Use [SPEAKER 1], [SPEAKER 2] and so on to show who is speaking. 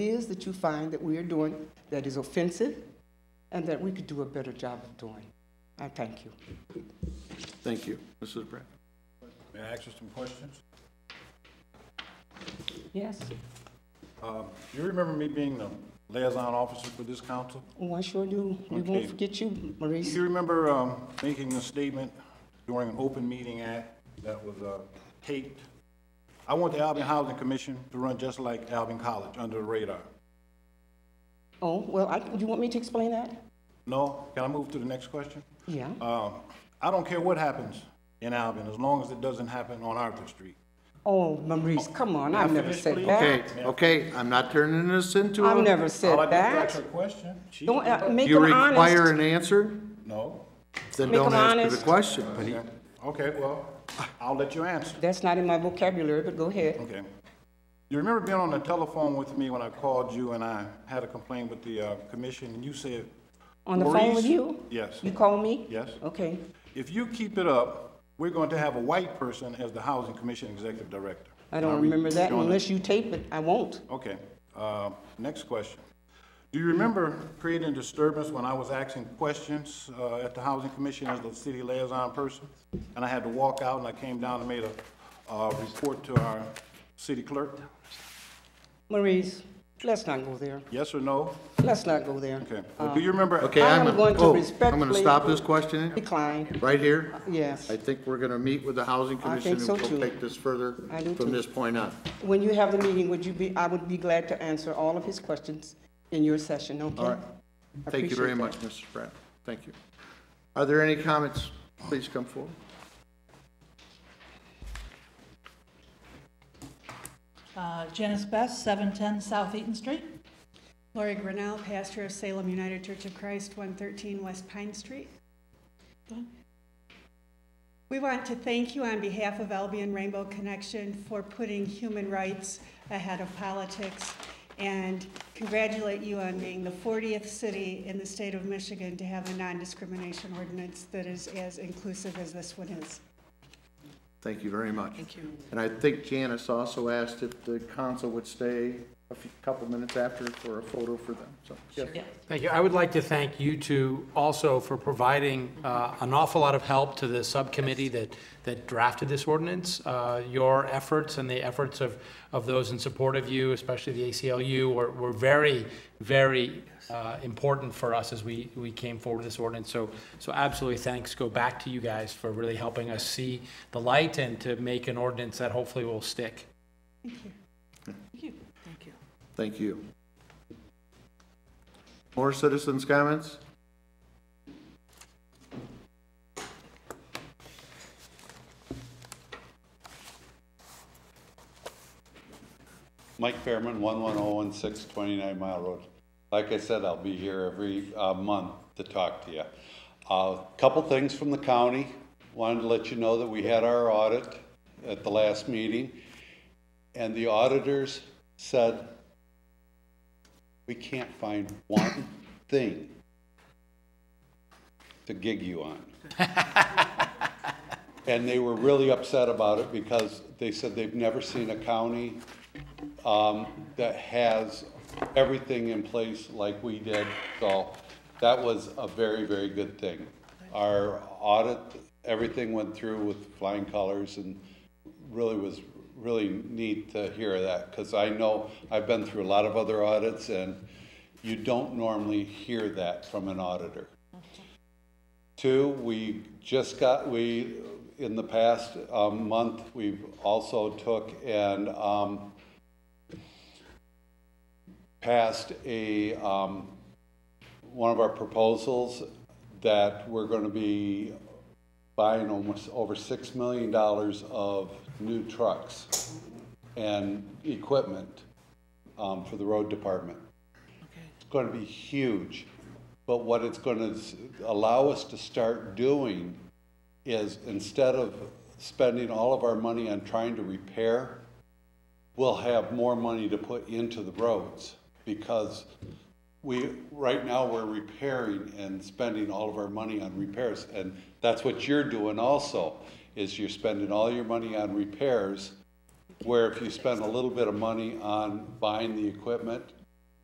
[SPEAKER 1] is that you find that we are doing that is offensive and that we could do a better job of doing. I thank you.
[SPEAKER 2] Thank you. Mrs. Brad.
[SPEAKER 3] May I ask you some questions?
[SPEAKER 1] Yes,
[SPEAKER 3] Do you remember me being the liaison officer for this council?
[SPEAKER 1] oh, I sure do. We
[SPEAKER 3] Okay.
[SPEAKER 1] won't forget you,
[SPEAKER 3] Do
[SPEAKER 1] Maurice.
[SPEAKER 3] you remember um, making a statement during an open meeting act that was uh, taped? I want the Albion Housing Commission to run just like Albion College, under the radar.
[SPEAKER 1] Oh, well, I, you want me to explain that?
[SPEAKER 3] No? Can I move to the next question?
[SPEAKER 1] Yeah,
[SPEAKER 3] Um, I don't care what happens in Albion, as long as it doesn't happen on Arthur Street.
[SPEAKER 1] oh, Maurice, come on, I've
[SPEAKER 3] May I
[SPEAKER 1] never
[SPEAKER 3] finish,
[SPEAKER 1] said
[SPEAKER 3] please?
[SPEAKER 2] Okay,
[SPEAKER 1] that.
[SPEAKER 2] okay, I'm not turning this into
[SPEAKER 1] I've
[SPEAKER 2] a,
[SPEAKER 1] never
[SPEAKER 3] All I
[SPEAKER 1] said
[SPEAKER 3] did was ask
[SPEAKER 1] that.
[SPEAKER 3] her a question. She-
[SPEAKER 1] Don't, uh, make
[SPEAKER 2] you
[SPEAKER 1] him
[SPEAKER 2] require
[SPEAKER 1] honest.
[SPEAKER 2] an answer?
[SPEAKER 3] No?
[SPEAKER 2] Then
[SPEAKER 1] Make
[SPEAKER 2] don't
[SPEAKER 1] him
[SPEAKER 2] ask me the
[SPEAKER 1] honest.
[SPEAKER 2] question.
[SPEAKER 3] Okay, Okay, well, I'll let you answer.
[SPEAKER 1] That's not in my vocabulary, but go ahead.
[SPEAKER 3] Okay. You remember being on the telephone with me when I called you and I had a complaint with the uh, commission, and you said,
[SPEAKER 1] On the phone with
[SPEAKER 3] Maurice?
[SPEAKER 1] you?
[SPEAKER 3] Yes.
[SPEAKER 1] You call me?
[SPEAKER 3] Yes.
[SPEAKER 1] Okay,
[SPEAKER 3] if you keep it up, we're going to have a white person as the Housing Commission Executive Director.
[SPEAKER 1] I don't
[SPEAKER 3] Now,
[SPEAKER 1] remember that
[SPEAKER 3] don't-
[SPEAKER 1] unless you tape it, I won't.
[SPEAKER 3] Okay, uh, next question. Do you remember creating disturbance when I was asking questions uh, at the Housing Commission as the city liaison person? And I had to walk out and I came down and made a uh, report to our city clerk?
[SPEAKER 1] Maurice, let's not go there.
[SPEAKER 3] Yes or no?
[SPEAKER 1] Let's not go there.
[SPEAKER 3] Okay. Well, Do you remember?
[SPEAKER 2] Okay,
[SPEAKER 1] I am
[SPEAKER 2] I'm,
[SPEAKER 1] going to
[SPEAKER 2] oh, I'm gonna
[SPEAKER 1] respectfully-
[SPEAKER 2] stop this questioning
[SPEAKER 1] Decline,
[SPEAKER 2] right here.
[SPEAKER 1] yes.
[SPEAKER 2] I think we're gonna meet with the Housing Commission and
[SPEAKER 1] so
[SPEAKER 2] we'll
[SPEAKER 1] too.
[SPEAKER 2] take this further
[SPEAKER 1] I do
[SPEAKER 2] from
[SPEAKER 1] too.
[SPEAKER 2] this point on.
[SPEAKER 1] When you have the meeting, would you be, I would be glad to answer all of his questions in your session, okay?
[SPEAKER 2] All right.
[SPEAKER 1] I
[SPEAKER 2] Thank you very
[SPEAKER 1] appreciate
[SPEAKER 2] much, Mrs. Brad. Thank you. Are there any comments? Please come forward.
[SPEAKER 4] Uh, Janice Best, 710 South Eaton Street.
[SPEAKER 5] Lori Grinnell, pastor of Salem United Church of Christ, 113 West Pine Street. We want to thank you on behalf of Albion Rainbow Connection for putting human rights ahead of politics and congratulate you on being the 40th city in the state of Michigan to have a non-discrimination ordinance that is as inclusive as this one is.
[SPEAKER 2] Thank you very much. Thank you. And I think Janice also asked if the council would stay a few, couple minutes after for a photo for them, so. yes.
[SPEAKER 6] Thank you. I would like to thank you two also for providing uh, an awful lot of help to the subcommittee that, that drafted this ordinance. Uh, Your efforts and the efforts of, of those in support of you, especially the ACLU, were, were very, very uh, important for us as we, we came forward with this ordinance. So, so absolutely thanks go back to you guys for really helping us see the light and to make an ordinance that hopefully will stick.
[SPEAKER 2] Thank you. More citizens' comments?
[SPEAKER 7] Mike Fairman, 11016, 29 Mile Road. Like I said, I'll be here every uh, month to talk to you. A Couple things from the county. Wanted to let you know that we had our audit at the last meeting, and the auditors said, "We can't find one thing to gig you on." And they were really upset about it because they said they've never seen a county um, that has everything in place like we did. So that was a very, very good thing. Our audit, everything went through with flying colors and really was really neat to hear that because I know I've been through a lot of other audits and you don't normally hear that from an auditor. Two, we just got, we, in the past um, month, we've also took and um, passed a, um, one of our proposals that we're going to be buying almost over $6 million of new trucks and equipment um, for the road department. It's going to be huge, but what it's going to allow us to start doing is instead of spending all of our money on trying to repair, we'll have more money to put into the roads because we, right now, we're repairing and spending all of our money on repairs. And that's what you're doing also, is you're spending all your money on repairs, where if you spend a little bit of money on buying the equipment,